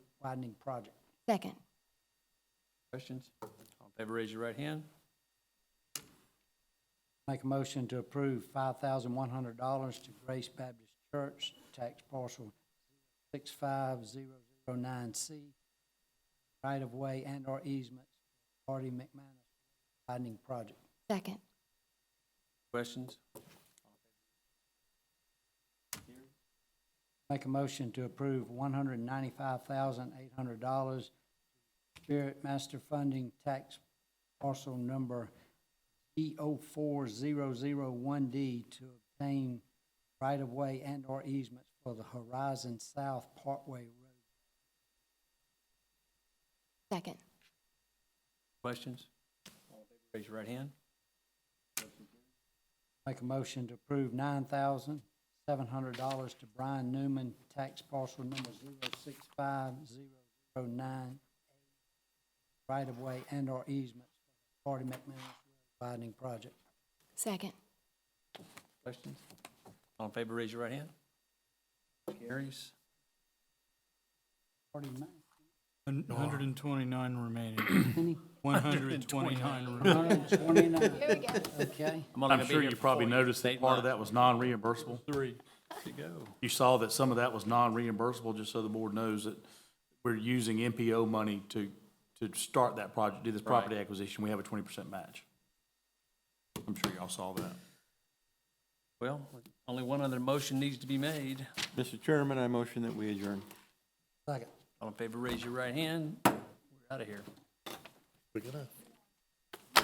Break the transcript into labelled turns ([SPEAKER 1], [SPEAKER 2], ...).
[SPEAKER 1] widening project.
[SPEAKER 2] Second.
[SPEAKER 3] Questions? All in favor, raise your right hand.
[SPEAKER 1] Make a motion to approve five thousand one hundred dollars to Grace Baptist Church, tax parcel six five zero zero nine C, right of way and or easement, Artie McManus widening project.
[SPEAKER 2] Second.
[SPEAKER 3] Questions?
[SPEAKER 1] Make a motion to approve one hundred ninety-five thousand eight hundred dollars Spirit Master Funding Tax Parcel Number E O four zero zero one D to obtain right-of-way and/or easements for the Horizon South Parkway Road.
[SPEAKER 2] Second.
[SPEAKER 3] Questions? All in favor, raise your right hand.
[SPEAKER 1] Make a motion to approve nine thousand seven hundred dollars to Brian Newman, tax parcel number zero six five zero zero nine, right-of-way and/or easements for the Hardy McManus Road widening project.
[SPEAKER 2] Second.
[SPEAKER 3] Questions? All in favor, raise your right hand. Carries.
[SPEAKER 1] Hardy Ma-
[SPEAKER 4] Hun- 129 remaining. 129 remaining.
[SPEAKER 1] 129. Okay,
[SPEAKER 3] I'm only
[SPEAKER 5] I'm
[SPEAKER 3] gonna be
[SPEAKER 5] sure
[SPEAKER 3] here
[SPEAKER 5] you
[SPEAKER 3] for
[SPEAKER 5] probably
[SPEAKER 3] four
[SPEAKER 5] noticed
[SPEAKER 3] Eight
[SPEAKER 5] that part of
[SPEAKER 3] months.
[SPEAKER 5] that was non-reimbursable.
[SPEAKER 4] Three.
[SPEAKER 3] years to go.
[SPEAKER 5] You saw that some of that was non-reimbursable, just so the board knows that we're using MPO money to, to start that project, do this property acquisition. We have a 20% match. I'm sure y'all saw that.
[SPEAKER 3] Well, only one other motion needs to be made.
[SPEAKER 6] Mr. Chairman, I motion that we adjourn.
[SPEAKER 1] second.
[SPEAKER 3] All in favor, raise your right hand. We're out of here.
[SPEAKER 7] Quick enough.